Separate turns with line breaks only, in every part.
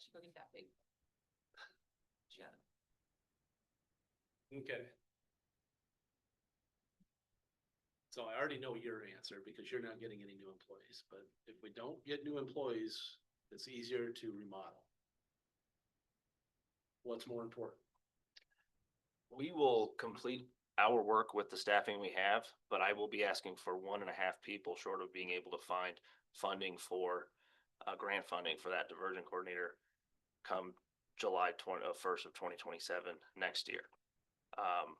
should go get that big. Yeah.
Okay. So I already know your answer because you're not getting any new employees, but if we don't get new employees, it's easier to remodel. What's more important?
We will complete our work with the staffing we have, but I will be asking for one and a half people short of being able to find funding for uh, grant funding for that diversion coordinator come July twenty, uh, first of twenty twenty-seven next year. Um,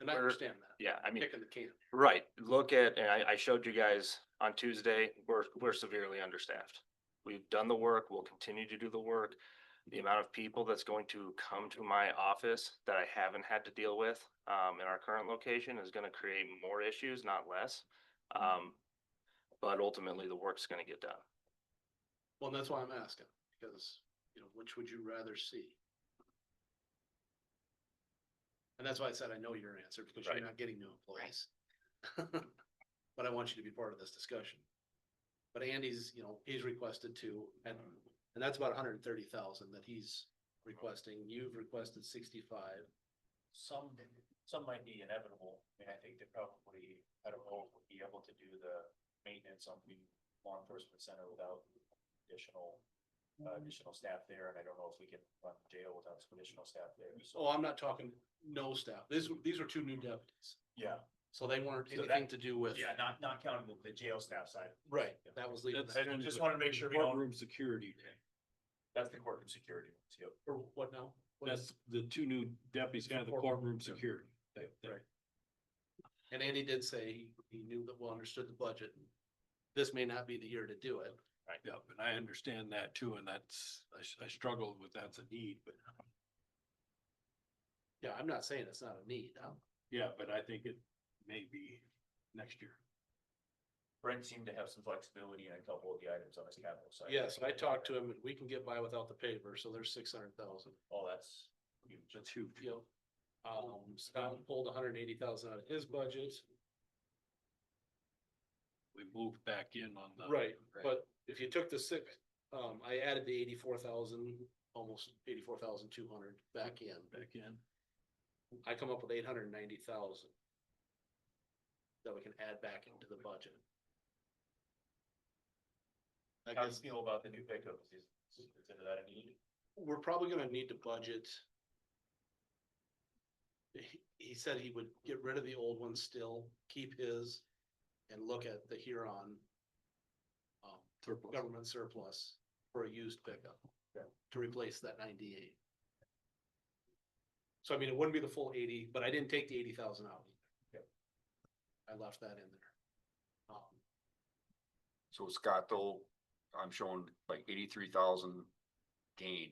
And I
We're-
understand that.
yeah, I mean,
Kicking the can.
right, look at, and I, I showed you guys on Tuesday, we're, we're severely understaffed. We've done the work, we'll continue to do the work. The amount of people that's going to come to my office that I haven't had to deal with, um, in our current location is gonna create more issues, not less. Um, but ultimately, the work's gonna get done.
Well, that's why I'm asking, because, you know, which would you rather see? And that's why I said I know your answer, because you're
Right.
not getting new employees. But I want you to be part of this discussion. But Andy's, you know, he's requested to, and, and that's about hundred and thirty thousand that he's requesting, you've requested sixty-five.
Some, some might be inevitable, I mean, I think they probably, I don't know, if we'll be able to do the maintenance on the law enforcement center without additional. Uh, additional staff there, and I don't know if we can run the jail without some additional staff there, so,
Oh, I'm not talking no staff, these, these are two new deputies,
yeah,
so they weren't
So that-
anything to do with.
yeah, not, not counting the, the jail staff side.
Right, that was leaving,
That's-
that.
I just wanna make sure we don't,
Courtroom security,
that's the courtroom security, one, too.
or what now? What is-
that's the two new deputies, kind of the courtroom security. They- they-
Right. And Andy did say he, he knew that, well, understood the budget. This may not be the year to do it.
Yep, and I understand that too, and that's, I, s- I struggled with that's a need, but
Yeah, I'm not saying it's not a need. I'm-
yeah, but I think it may be next year.
Brent seemed to have some flexibility in a couple of the items on his capital side.
Yes, I talked to him and we can get by without the paver, so there's six hundred thousand.
Oh, that's huge.
That's huge.
Yep. Um, Scott pulled hundred and eighty thousand out of his budget,
We moved back in on the.
Right, but if you took the six, um, I added the eighty-four thousand, almost eighty-four thousand two hundred back in.
Back in.
I come up with eight hundred and ninety thousand. That we can add back into the budget. I
How do you
guess
feel about the new pickup? Is, is is that a need?
we're probably gonna need to budget. He, he said he would get rid of the old one still, keep his, and look at the Huron. Um,
Surplus.
government surplus for a used pickup to replace that ninety-eight. So I mean, it wouldn't be the full eighty, but I didn't take the eighty thousand out. either. I left that in there. Um,
So Scott, though, I'm showing like eighty-three thousand gain.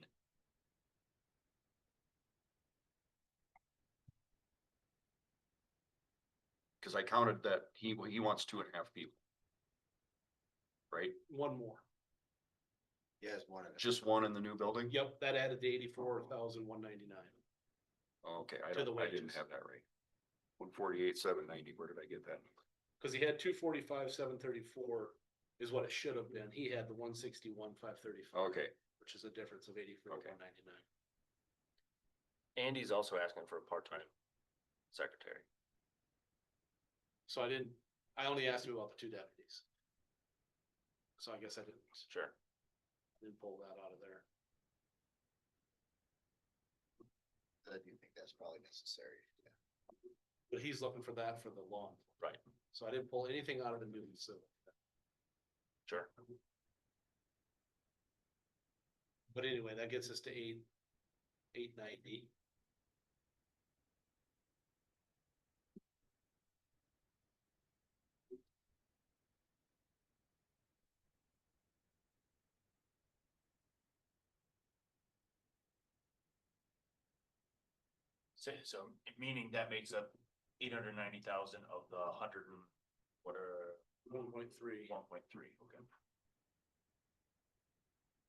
Cause I counted that he, well, he wants two and a half people. Right?
One more.
Yes, one of them.
Just one in the new building?
Yep, that added the eighty-four thousand one ninety-nine.
Okay, I
To the
don't, I didn't
wages.
have that right. One forty-eight, seven ninety, where did I get that?
Cause he had two forty-five, seven thirty-four is what it should have been. He had the one sixty-one, five thirty-five.
Okay,
Which is a difference of eighty-four,
Okay.
one ninety-nine.
Andy's also asking for a part-time secretary.
So I didn't, I only asked him about the two deputies. So I guess I didn't,
Sure.
didn't pull that out of there.
I do think that's probably necessary. yeah.
But he's looking for that for the lawn.
Right.
So I didn't pull anything out of the new, so,
Sure.
but anyway, that gets us to eight, eight ninety.
So, so meaning that makes up eight hundred ninety thousand of the hundred and what are
One point three.
one point three, okay.